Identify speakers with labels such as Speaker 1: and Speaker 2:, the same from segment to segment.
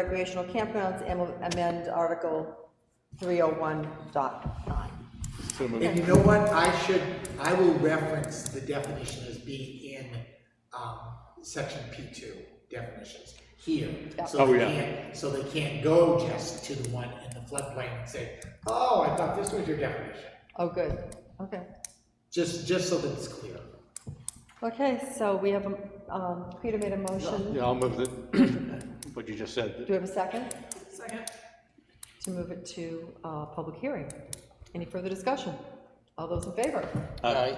Speaker 1: recreational campgrounds and will amend Article 301.9.
Speaker 2: So moved.
Speaker 3: And you know what, I should, I will reference the definition as being in, um, section P two definitions here. So
Speaker 2: Oh,
Speaker 3: they
Speaker 2: yeah.
Speaker 3: can't, so they can't go just to the one in the floodplain and say, oh, I thought this was your definition.
Speaker 1: Oh, good, okay.
Speaker 3: Just, just so that it's clear.
Speaker 1: Okay, so we have, a- um, Peter made a motion.
Speaker 2: Yeah, I'll move it, what you just
Speaker 1: Do we
Speaker 2: said.
Speaker 1: have a second? Second. To move it to, uh, public hearing. Any further discussion? All those in favor?
Speaker 2: Aye.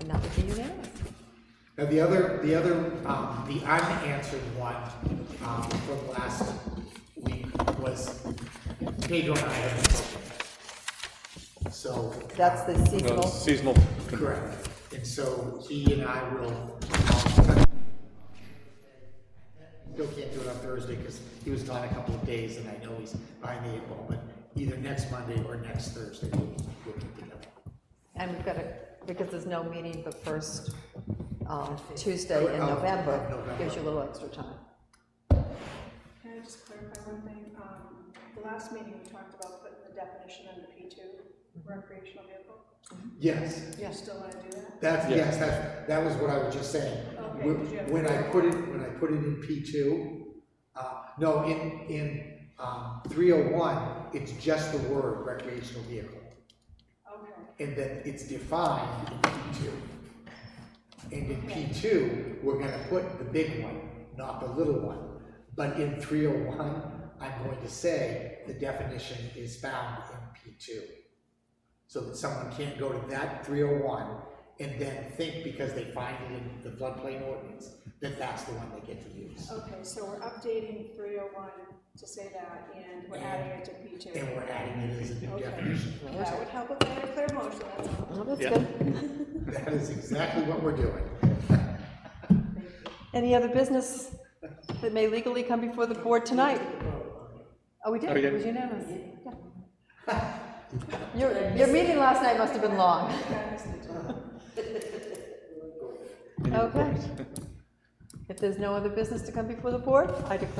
Speaker 1: And that would be unanimous.
Speaker 3: Now, the other, the other, um, the unanswered one, um, from last week was Pedro and I have So.
Speaker 1: That's the
Speaker 2: No,
Speaker 1: seasonal,
Speaker 2: Seasonal,
Speaker 3: Correct, and so he and I will. Still can't do it on Thursday because he was gone a couple of days and I know he's behind the eight ball, but either next Monday or next Thursday, we'll, we'll get together.
Speaker 1: and we've got a, because there's no meeting but first, um, Tuesday in
Speaker 3: Oh,
Speaker 1: November,
Speaker 3: November.
Speaker 1: gives you a little extra time.
Speaker 4: Can I just clarify one thing? Um, the last meeting we talked about putting the definition under P two, recreational vehicle.
Speaker 3: Yes,
Speaker 4: Do you still wanna do that?
Speaker 3: that's,
Speaker 2: Yeah.
Speaker 3: yes, that, that was what I was just saying.
Speaker 4: Okay,
Speaker 3: When-
Speaker 4: did you have-
Speaker 3: When I put it, when I put it in P two, uh, no, in, in, um, three oh one, it's just the word recreational vehicle.
Speaker 4: Okay,
Speaker 3: and then it's defined in P two. And in P two, we're gonna put the big one, not the little one. But in three oh one, I'm going to say the definition is found in P two. So that someone can't go to that three oh one and then think because they find it in the floodplain ordinance, that that's the one they get to use.
Speaker 4: okay, so we're updating three oh one to say that, and we're adding it to P two.
Speaker 3: And we're adding it as a new
Speaker 4: Okay.
Speaker 3: definition.
Speaker 4: That would help with the clear motion, that's all.
Speaker 1: Well, that's
Speaker 2: Yeah.
Speaker 1: good.
Speaker 3: That is exactly what we're doing.
Speaker 1: Any other business that may legally come before the board tonight? Oh, we did,
Speaker 2: Oh, we
Speaker 1: it
Speaker 2: did.
Speaker 1: was unanimous. Yeah. Your, your meeting last night must have been long. Okay. If there's no other business to come before the board, I declare